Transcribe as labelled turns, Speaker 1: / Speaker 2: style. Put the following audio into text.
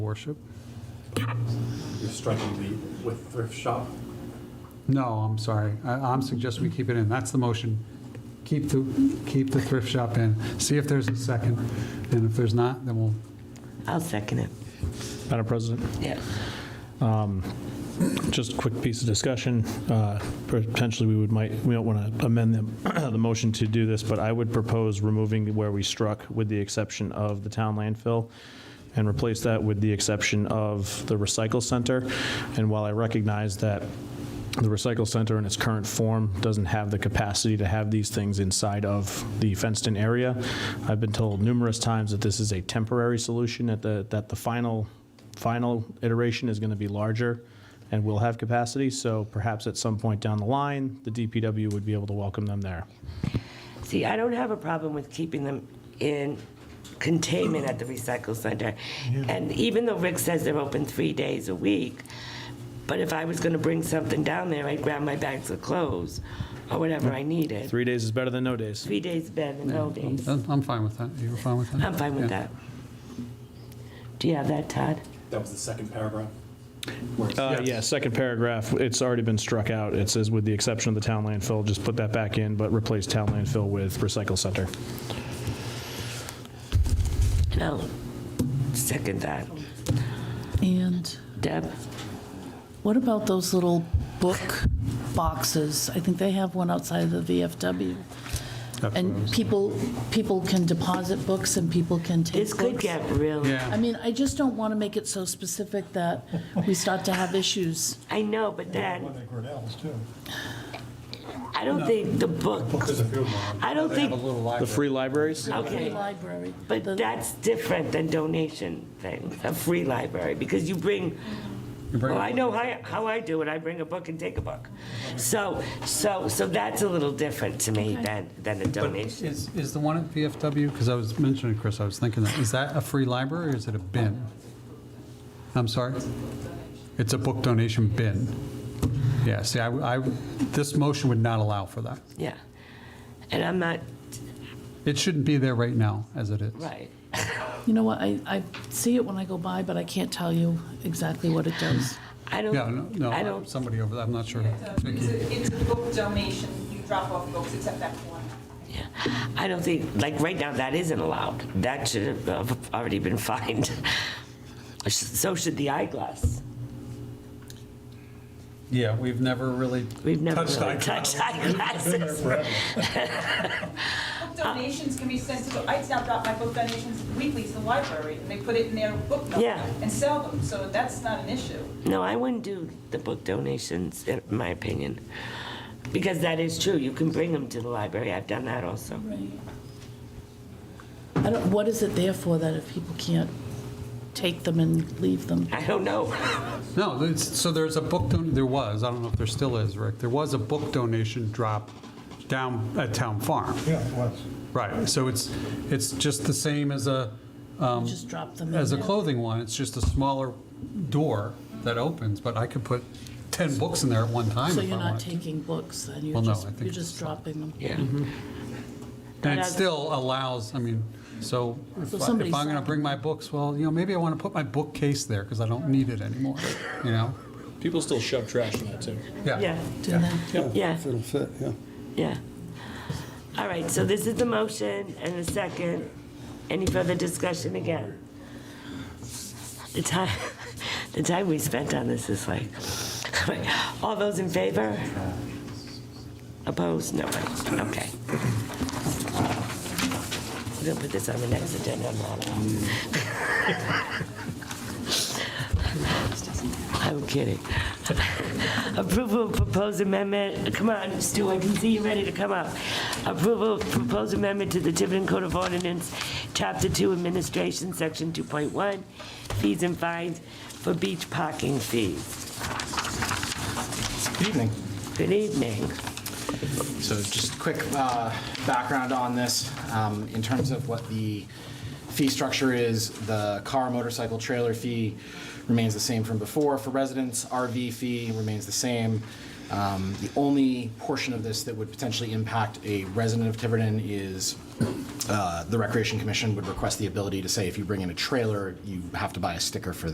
Speaker 1: worship.
Speaker 2: You're striking the with thrift shop.
Speaker 1: No, I'm sorry. I- I'm suggesting we keep it in. That's the motion. Keep the, keep the thrift shop in. See if there's a second. And if there's not, then we'll,
Speaker 3: I'll second it.
Speaker 4: Madam President, Um,
Speaker 3: Yes.
Speaker 4: just a quick piece of discussion. Uh, Potentially, we would, might, we don't want to amend the, the motion to do this, but I would propose removing where we struck with the exception of the town landfill and replace that with the exception of the recycle center. And while I recognize that the recycle center in its current form doesn't have the capacity to have these things inside of the fenced-in area, I've been told numerous times that this is a temporary solution, that the, that the final, final iteration is going to be larger and will have capacity, so perhaps at some point down the line, the DPW would be able to welcome them there.
Speaker 3: See, I don't have a problem with keeping them in containment at the recycle center. And even though Rick says they're open three days a week, but if I was gonna bring something down there, I'd grab my bags of clothes or whatever I needed.
Speaker 4: Three days is better than no days.
Speaker 3: Three days better than no days.
Speaker 1: I'm I'm fine with that. You were fine with that?
Speaker 3: I'm fine
Speaker 1: Yeah.
Speaker 3: with that. Do you have that, Todd?
Speaker 2: That was the second paragraph.
Speaker 4: Uh, Yeah, second paragraph, it's already been struck out. It says, with the exception of the town landfill, just put that back in, but replace town landfill with recycle center.
Speaker 3: No. Second that.
Speaker 5: And
Speaker 3: Deb?
Speaker 5: what about those little book boxes? I think they have one outside of the VFW. And people, people can deposit books and people can take
Speaker 3: This
Speaker 5: books.
Speaker 3: could get really,
Speaker 5: I
Speaker 1: Yeah,
Speaker 5: mean, I just don't want to make it so specific that we start to have issues.
Speaker 3: I know, but then,
Speaker 6: One at Grinnell's too.
Speaker 3: I don't think the books, I don't
Speaker 1: they have a
Speaker 3: think,
Speaker 1: little
Speaker 4: The
Speaker 1: library.
Speaker 4: free libraries?
Speaker 5: The
Speaker 3: okay.
Speaker 5: library. the-
Speaker 3: But that's different than donation thing, a free library, because you bring,
Speaker 1: You bring-
Speaker 3: well, I know how, how I do it, I bring a book and take a book. So, so, so that's a little different to me than, than a donation.
Speaker 1: Is, is the one at VFW, because I was mentioning, Chris, I was thinking, that is that a free library or is it a bin? I'm sorry? It's a book donation bin. Yeah, see, I, I- this motion would not allow for that.
Speaker 3: Yeah. And I'm not,
Speaker 1: It shouldn't be there right now, as it is.
Speaker 3: right.
Speaker 5: You know what, I, I see it when I go by, but I can't tell you exactly what it does.
Speaker 3: I
Speaker 1: Yeah,
Speaker 3: don't,
Speaker 1: no,
Speaker 3: I
Speaker 1: no,
Speaker 3: don't,
Speaker 1: somebody over there, I'm not sure.
Speaker 7: It's a- it's a book donation, you drop off books, it's at that corner.
Speaker 3: yeah. I don't think, like, right now, that isn't allowed. That should have uh, already been fined. So should the eyeglass.
Speaker 1: Yeah, we've never really
Speaker 3: We've never
Speaker 1: Touched
Speaker 3: really
Speaker 1: eyeglasses.
Speaker 3: touched eyeglasses.
Speaker 7: Book donations can be sent to, I now drop my book donations weekly to the library, and they put it in their book nook
Speaker 3: Yeah.
Speaker 7: and sell them, so that's not an issue.
Speaker 3: No, I wouldn't do the book donations, in my opinion, because that is true. You can bring them to the library. I've done that also.
Speaker 5: I don't, what is it there for that if people can't take them and leave them?
Speaker 3: I don't know.
Speaker 1: No, there's- so there's a book, don- there was, I don't know if there still is, Rick, there was a book donation drop down at Town Farm.
Speaker 6: Yeah, it was.
Speaker 1: Right, so it's, it's just the same as a,
Speaker 5: Just drop them in
Speaker 1: as a
Speaker 5: there.
Speaker 1: clothing one, it's just a smaller door that opens, but I could put 10 books in there at one time
Speaker 5: So
Speaker 1: if I
Speaker 5: you're not
Speaker 1: wanted to.
Speaker 5: taking books, then you're
Speaker 1: Well, no,
Speaker 5: just,
Speaker 1: I think
Speaker 5: you're
Speaker 1: it's-
Speaker 5: just dropping them.
Speaker 3: Yeah.
Speaker 1: And it still allows, I mean, so if I- if
Speaker 5: So
Speaker 1: I'm
Speaker 5: somebody's-
Speaker 1: going to bring my books, well, you know, maybe I want to put my bookcase there because I don't need it anymore, you know?
Speaker 4: People still shove trash in that, too.
Speaker 3: Yeah,
Speaker 5: Do that.
Speaker 3: yeah. It'll fit, yeah. Yeah. All right, so this is the motion and the second. Any further discussion again? The time, the time we spent on this is like, all those in favor? Opposed? No one. Okay. We'll put this on the next agenda. I'm not on. I'm kidding. Approval of proposed amendment, come on, Stu, I can see you ready to come up. Approval of proposed amendment to the Tiverton Code of Ordinance, Chapter 2 Administration, Section 2.1, fees and fines for beach parking fees.
Speaker 8: Good evening.
Speaker 3: Good evening.
Speaker 8: So just quick uh, background on this, um, in terms of what the fee structure is, the car, motorcycle, trailer fee remains the same from before for residents, RV fee remains the same. Um, The only portion of this that would potentially impact a resident of Tiverton is uh, the Recreation Commission would request the ability to say, if you bring in a trailer, you have to buy a sticker for